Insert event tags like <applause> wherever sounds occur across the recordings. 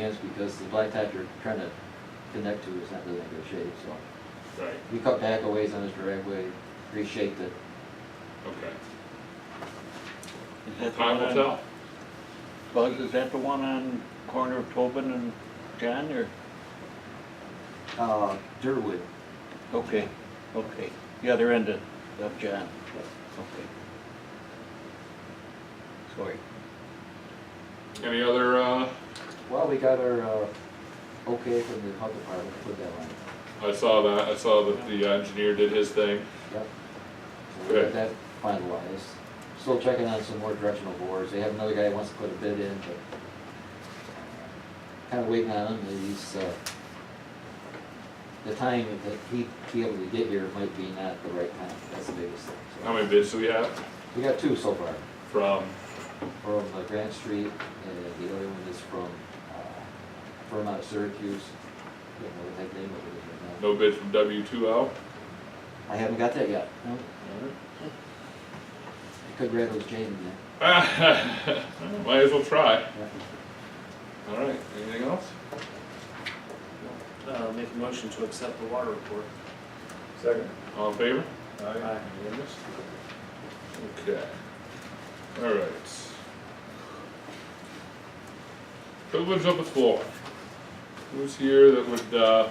plans because the blacktop you're trying to connect to is not really in good shape, so. Right, We cut back a ways on this driveway, reshaped it. okay. Well, Is that the time one will on, tell. Buzz, is that the one on corner of Tobin and John, or? Uh, Durwood, Okay, okay, the other end of, of John, okay. Sorry. Any other, uh, well, we got our, uh, okay from the health department, to put that on. I saw that, I saw that the uh, engineer did his thing. Yep. So we got Good. that finalized. Still checking on some more directional boards. They have another guy who wants to put a bid in, but kind of waiting on him. He's, uh, the time that he'd be able to get here might be not the right time. That's the biggest thing. so. How many bids do we have We got two so far, from, from uh, Grant Street, and the other one is from, uh, firm out of Syracuse. I don't know what that name of it is right now. no bid from W two L? I haven't got that yet. No, I could grab those chains in there. <laughs> Might as well try. All right, anything else? Uh, make a motion to accept the water report. Second. All in favor? Aye. Unanimous? Okay. All right. Who lives up the floor? Who's here that would, uh,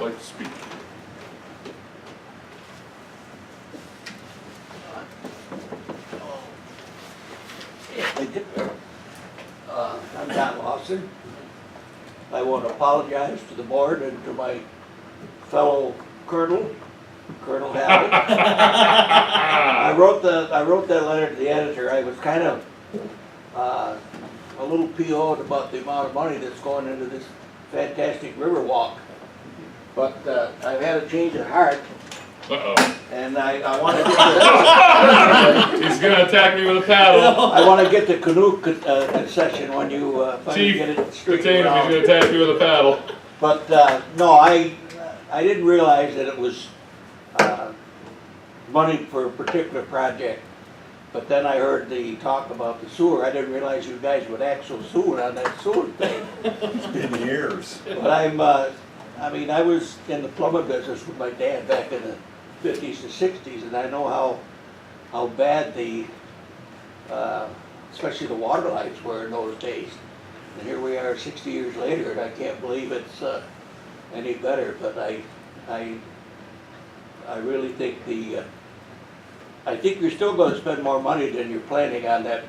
like to speak? Uh, I'm Don Lawson. I want to apologize to the board and to my fellow colonel, Colonel Howard. Ah! I wrote the, I wrote that letter to the editor, I was kind of, uh, a little PO'd about the amount of money that's going into this fantastic river walk. But, uh, I've had a change of heart, Uh-oh, and I, I wanna get the, he's gonna attack me with a <laughs> paddle. I wanna get the canoe con- uh, concession when you, uh, finally Chief, get it straightened Contain him, out. he's gonna attack me with a paddle. But, uh, no, I, I didn't realize that it was, uh, money for a particular project. But then I heard the talk about the sewer, I didn't realize you guys would act so soon on that sewer thing. It's been years. But I'm, uh, I mean, I was in the plumbing business with my dad back in the fifties and sixties, and I know how, how bad the, uh, especially the water lines were in those days. And here we are sixty years later, and I can't believe it's, uh, any better, but I, I, I really think the, uh, I think you're still gonna spend more money than you're planning on that,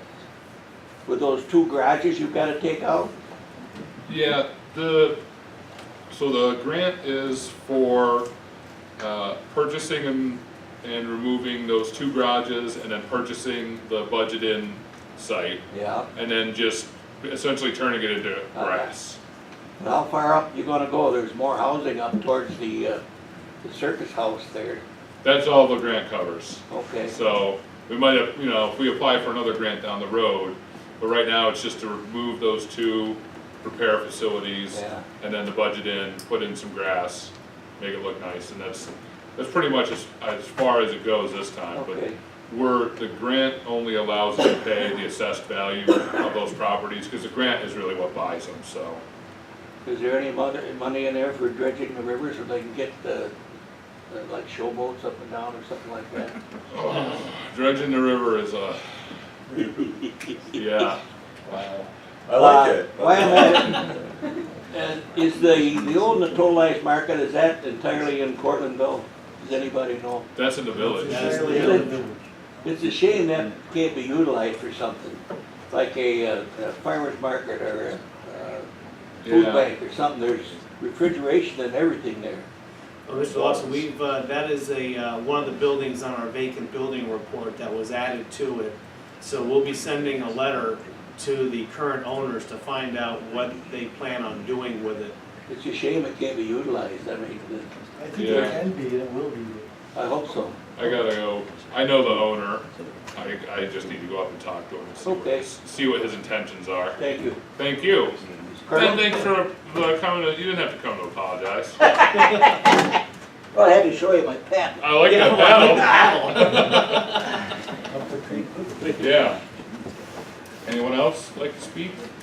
with those two garages you've gotta take out. Yeah, the, so the grant is for, uh, purchasing and, and removing those two garages and then purchasing the budget-in site. Yeah. and then just essentially turning it into grass. How far up you gonna go? There's more housing up towards the, uh, the circus house there. That's all the grant covers. Okay, So we might have, you know, if we apply for another grant down the road, but right now it's just to remove those two repair facilities Yeah. and then the budget in, put in some grass, make it look nice, and that's, that's pretty much as, as far as it goes this time. But okay, we're, the grant only allows us to pay the assessed value of those properties, because the grant is really what buys them, so. is there any mother, money in there for dredging the river so they can get the, the, like showboats up and down or something like that? Dredging the river is a, yeah. I like it. Uh, Wait a minute. <laughs> Uh, Is the, the old Natolai's Market, is that entirely in Cortlandville? Does anybody know? That's in the village. It's a shame that can't be utilized for something, like a, uh, a farmer's market or a, uh, food Yeah. bank or something, there's refrigeration and everything there. Well, Mr. Lawson, we've, uh, that is a, uh, one of the buildings on our vacant building report that was added to it. So we'll be sending a letter to the current owners to find out what they plan on doing with it. It's a shame it can't be utilized, I mean, the- I think it Yeah. can be, and it will be. I hope so. I gotta go, I know the owner, I, I just need to go up and talk to him and see what, Okay. his- see what his intentions are. Thank you. Thank you. Colonel? And thanks for the coming, to- you didn't have to come to apologize. Well, I had to show you my patent. I like that battle. <laughs> Up the creek. Yeah. Anyone else like to speak?